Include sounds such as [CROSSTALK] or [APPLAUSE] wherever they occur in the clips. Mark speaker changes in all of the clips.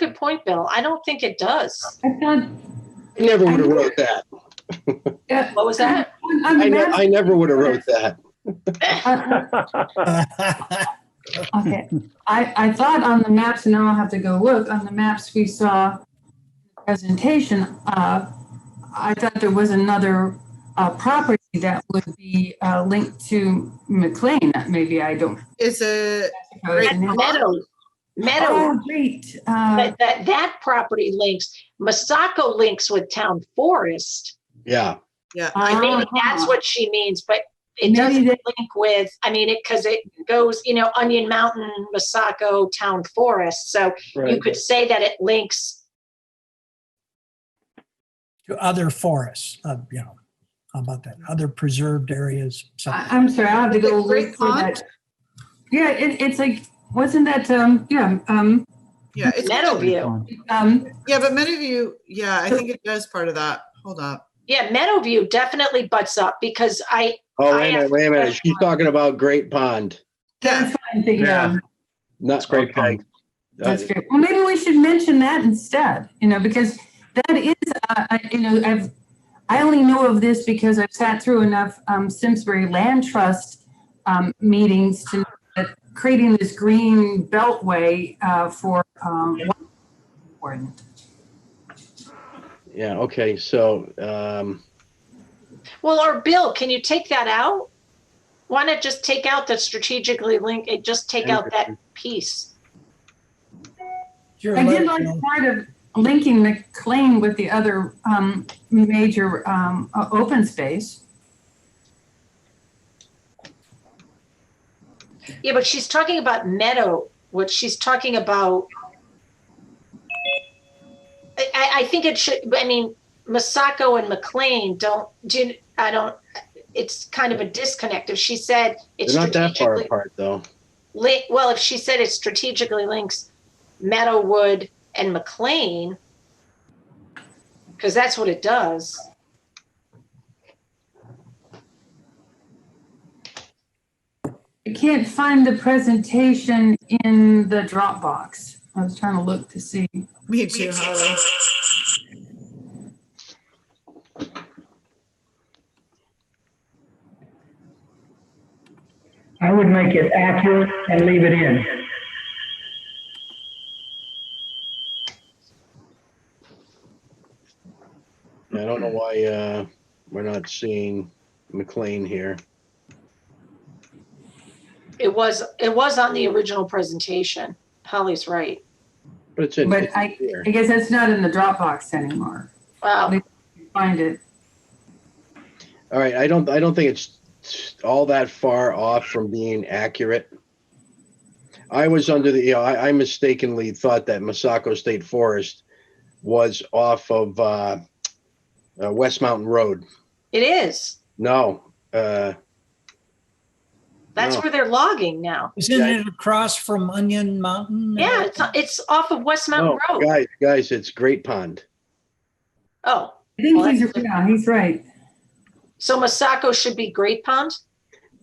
Speaker 1: good point, Bill. I don't think it does.
Speaker 2: I found,
Speaker 3: I never would have wrote that.
Speaker 2: yeah,
Speaker 1: What was
Speaker 2: [LAUGHS]
Speaker 1: that?
Speaker 2: on- on
Speaker 3: I,
Speaker 2: the
Speaker 3: ne-
Speaker 2: map.
Speaker 3: I never would have wrote that.
Speaker 2: uh,
Speaker 3: [LAUGHS]
Speaker 2: Okay, I, I thought on the maps, and now I'll have to go look, on the maps we saw presentation, uh, I thought there was another, uh, property that would be, uh, linked to McLean, maybe I don't.
Speaker 4: Is it,
Speaker 2: know the
Speaker 4: Right.
Speaker 2: name.
Speaker 1: Meadow. Meadow.
Speaker 2: Oh, great, uh,
Speaker 1: That, that, that property links, Masako links with town forest.
Speaker 3: Yeah.
Speaker 4: yeah,
Speaker 1: I maybe that's
Speaker 2: Uh-huh.
Speaker 1: what she means, but it
Speaker 2: Maybe
Speaker 1: doesn't
Speaker 2: they-
Speaker 1: link with, I mean, it, because it goes, you know, Onion Mountain, Masako, town forest. So you could say that it links,
Speaker 5: To other forests, uh, you know, how about that? Other preserved areas,
Speaker 2: I,
Speaker 5: something.
Speaker 2: I'm sorry, I'll have to
Speaker 4: Is it
Speaker 2: go
Speaker 4: Great
Speaker 2: look for
Speaker 4: Pond?
Speaker 2: that. Yeah, it, it's like, wasn't that, um, yeah, um,
Speaker 4: yeah, it's,
Speaker 1: Meadowview.
Speaker 2: um,
Speaker 4: yeah, but many of you, yeah, I think it does part of that. Hold up.
Speaker 1: Yeah, Meadowview definitely butts up because I, I
Speaker 3: Oh, wait a minute,
Speaker 1: asked-
Speaker 3: wait a minute. She's talking about Great Pond,
Speaker 4: Yeah, [LAUGHS]
Speaker 2: that's fine, the, um,
Speaker 3: not Great Pond. Uh,
Speaker 2: That's great. Well, maybe we should mention that instead, you know, because that is, uh, I- you know, I've, I only know of this because I've sat through enough um, Simsbury Land Trust um, meetings to know that creating this green beltway uh, for um, important.
Speaker 3: Yeah, okay, so, um,
Speaker 1: well, or Bill, can you take that out? Why not just take out the strategically linked, it just take out that piece?
Speaker 5: You're
Speaker 2: I did
Speaker 5: right,
Speaker 2: like
Speaker 5: Bill.
Speaker 2: part of linking the claim with the other um, major um, o- open space.
Speaker 1: Yeah, but she's talking about meadow, what she's talking about. I, I, I think it should, I mean, Masako and McLean don't, do, you- I don't, it's kind of a disconnect. If she said it's
Speaker 3: they're not that far
Speaker 1: strategically,
Speaker 3: apart, though.
Speaker 1: li- well, if she said it strategically links Meadowwood and McLean, because that's what it does.
Speaker 2: I can't find the presentation in the Dropbox. I was trying to look to see.
Speaker 4: me too, Holly.
Speaker 6: I would make it accurate and leave it in.
Speaker 3: I don't know why, uh, we're not seeing McLean here.
Speaker 1: It was, it was on the original presentation. Holly's right.
Speaker 3: But it's in
Speaker 2: But
Speaker 3: it's
Speaker 2: I,
Speaker 3: here.
Speaker 2: I guess that's not in the Dropbox anymore.
Speaker 1: Wow.
Speaker 2: Find it.
Speaker 3: All right, I don't, I don't think it's all that far off from being accurate. I was under the, you know, I I mistakenly thought that Masako State Forest was off of, uh, uh, West Mountain Road.
Speaker 1: It is.
Speaker 3: No, uh,
Speaker 1: That's
Speaker 3: No.
Speaker 1: where they're logging now.
Speaker 5: Isn't it across from Onion Mountain?
Speaker 1: Yeah, it's, it's off of West Mountain
Speaker 3: no,
Speaker 1: Road.
Speaker 3: guys, guys, it's Great Pond.
Speaker 1: Oh,
Speaker 2: I think
Speaker 1: Well,
Speaker 2: he's,
Speaker 1: that's-
Speaker 2: yeah, he's right.
Speaker 1: so Masako should be Great Pond?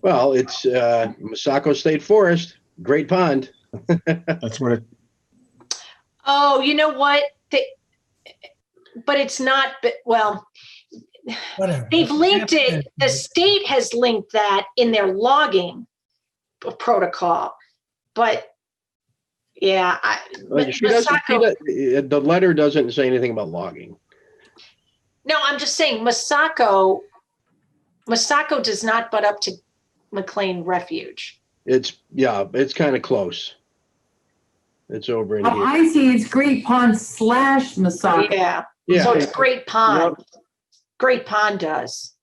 Speaker 3: Well, it's, uh, Masako State Forest, Great Pond.
Speaker 7: That's what it,
Speaker 1: Oh, you know what? They, but it's not, but, well,
Speaker 5: Whatever.
Speaker 1: they've linked it. The state has linked that in their logging p- protocol. But yeah, I,
Speaker 3: Like, she doesn't- she
Speaker 1: Masako-
Speaker 3: does- The letter doesn't say anything about logging.
Speaker 1: no, I'm just saying Masako, Masako does not butt up to McLean Refuge.
Speaker 3: It's, yeah, it's kind of close. It's over in
Speaker 2: Oh,
Speaker 3: here.
Speaker 2: I see. It's Great Pond slash Masaka.
Speaker 1: Yeah, so
Speaker 3: Yeah,
Speaker 1: it's Great Pond. Great Pond does.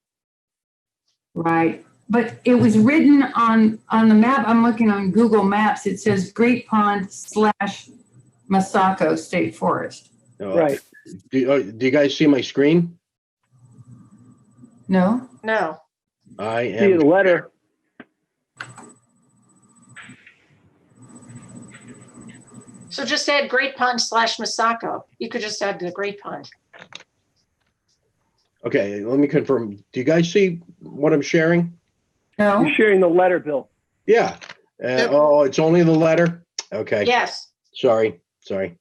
Speaker 2: Right. But it was written on, on the map. I'm looking on Google Maps. It says Great Pond slash Masako State Forest.
Speaker 3: no. Oh, Do, uh, do you guys see my screen?
Speaker 2: No?
Speaker 1: No,
Speaker 3: I
Speaker 8: See the
Speaker 3: am,
Speaker 8: letter.
Speaker 1: so just add Great Pond slash Masako. You could just add the Great Pond.
Speaker 3: okay, let me confirm. Do you guys see what I'm sharing?
Speaker 2: No?
Speaker 8: You're sharing the letter, Bill.
Speaker 3: Yeah. Uh,
Speaker 4: Yep.
Speaker 3: oh, it's only the letter? Okay,
Speaker 1: Yes,
Speaker 3: sorry, sorry.